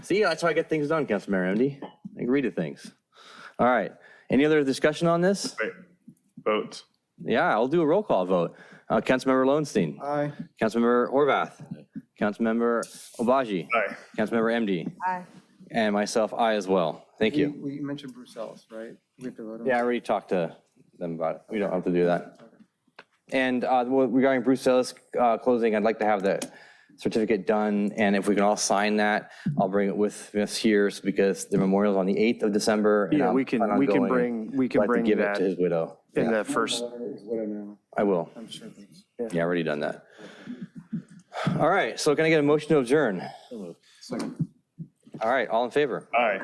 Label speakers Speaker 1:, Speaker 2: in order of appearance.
Speaker 1: See, that's how I get things done, Councilmember MD. I agree to things. All right. Any other discussion on this?
Speaker 2: Wait, vote.
Speaker 1: Yeah, I'll do a roll call vote. Uh, Councilmember Lowenstein,
Speaker 3: Aye.
Speaker 1: Councilmember Horvath, Councilmember Obaji,
Speaker 2: Aye.
Speaker 1: Councilmember MD,
Speaker 4: Aye.
Speaker 1: and myself, I as well. Thank
Speaker 3: We,
Speaker 1: you.
Speaker 3: we mentioned Bruce Ellis, right? We have to vote on.
Speaker 1: Yeah, I already talked to them about it. We don't have to do that. And uh, well, regarding Bruce Ellis uh, closing, I'd like to have the certificate done, and if we can all sign that, I'll bring it with us here so- because the memorial's on the 8th of December. and
Speaker 5: Yeah,
Speaker 1: I'm
Speaker 5: we can-
Speaker 1: planning on
Speaker 5: we can
Speaker 1: going.
Speaker 5: bring- we
Speaker 1: I'd
Speaker 5: can
Speaker 1: like to
Speaker 5: bring
Speaker 1: Give it
Speaker 5: that.
Speaker 1: to his widow.
Speaker 5: in that first.
Speaker 3: Is what I know.
Speaker 1: I will.
Speaker 3: I'm sure. of it.
Speaker 1: Yeah, I already done that. All right, so can I get a motion to adjourn? All right, all in favor?
Speaker 2: Aye.